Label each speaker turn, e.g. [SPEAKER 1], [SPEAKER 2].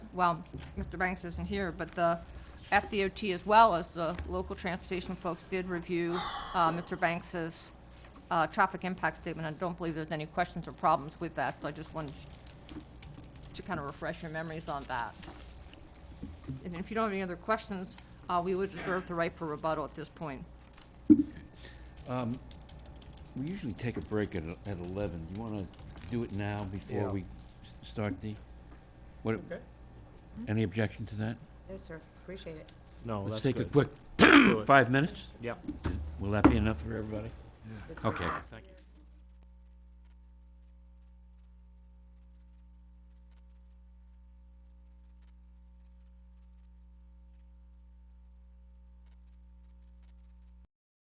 [SPEAKER 1] well, Mr. Banks isn't here, but the FDOT as well as the local transportation folks did review uh, Mr. Banks's uh, traffic impact statement. I don't believe there's any questions or problems with that, so I just wanted to kind of refresh your memories on that. And if you don't have any other questions, uh, we would reserve the right for rebuttal at this point.
[SPEAKER 2] We usually take a break at, at eleven. You wanna do it now before
[SPEAKER 3] Yeah.
[SPEAKER 2] we s- start the, what,
[SPEAKER 3] Okay.
[SPEAKER 2] any objection to that?
[SPEAKER 4] No, sir, appreciate it.
[SPEAKER 3] No,
[SPEAKER 2] Let's
[SPEAKER 3] Oh, that's
[SPEAKER 2] take a
[SPEAKER 3] good.
[SPEAKER 2] quick
[SPEAKER 3] Do it.
[SPEAKER 2] five minutes.
[SPEAKER 3] Yep.
[SPEAKER 2] Will that be enough for everybody?
[SPEAKER 4] This-
[SPEAKER 2] Okay.
[SPEAKER 3] Thank you.